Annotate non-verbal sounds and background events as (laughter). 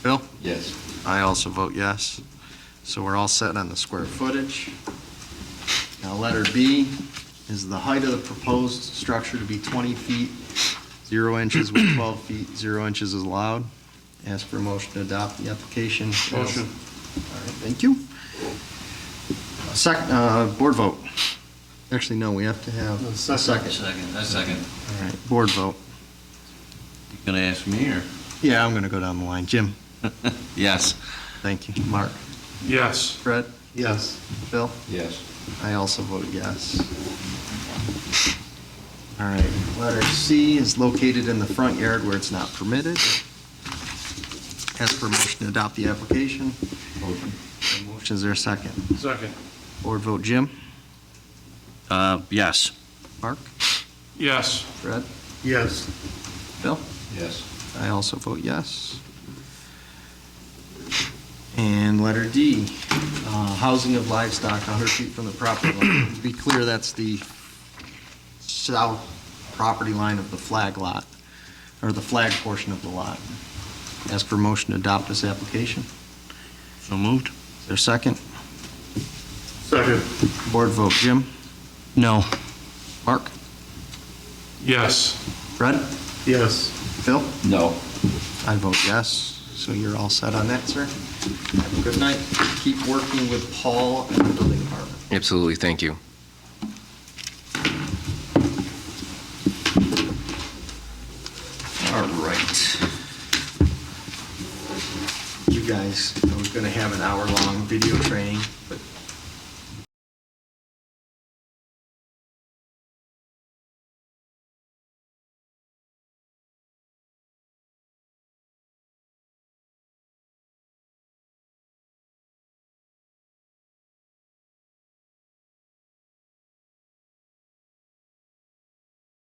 Yes. I also vote yes. So we're all set on the square footage. Now, letter B is the height of the proposed structure to be 20 feet, 0 inches (clears throat) with 12 feet, 0 inches is allowed. Ask for a motion to adopt the application. Motion. All right, thank you. Second, board vote. Actually, no, we have to have a second. Second, that's second. All right, board vote. You gonna ask me, or? Yeah, I'm going to go down the line. Jim, Yes. thank you. Mark? Yes. Fred? Yes. Bill? Yes. I also vote yes. All right, letter C is located in the front yard where it's not permitted. Ask for a motion to adopt the application. Motion. A Motion, is there a second? Second. Board vote Jim, Uh, yes. Mark, Yes. Fred, Yes. Bill? Yes. I also vote yes. And letter D, uh, housing of livestock 100 feet from the property line. To be clear, that's the south property line of the flag lot, or the flag portion of the lot. Ask for motion to adopt this application. So moved? Is there a second? Second. Board vote, Jim? No. Mark? Yes. Fred? Yes. Phil? No. I vote yes. So you're all set on that, sir? Have a Good night. Keep working with Paul and the building department. Absolutely, thank you. All right. You guys, I was gonna have an hour-long video training, but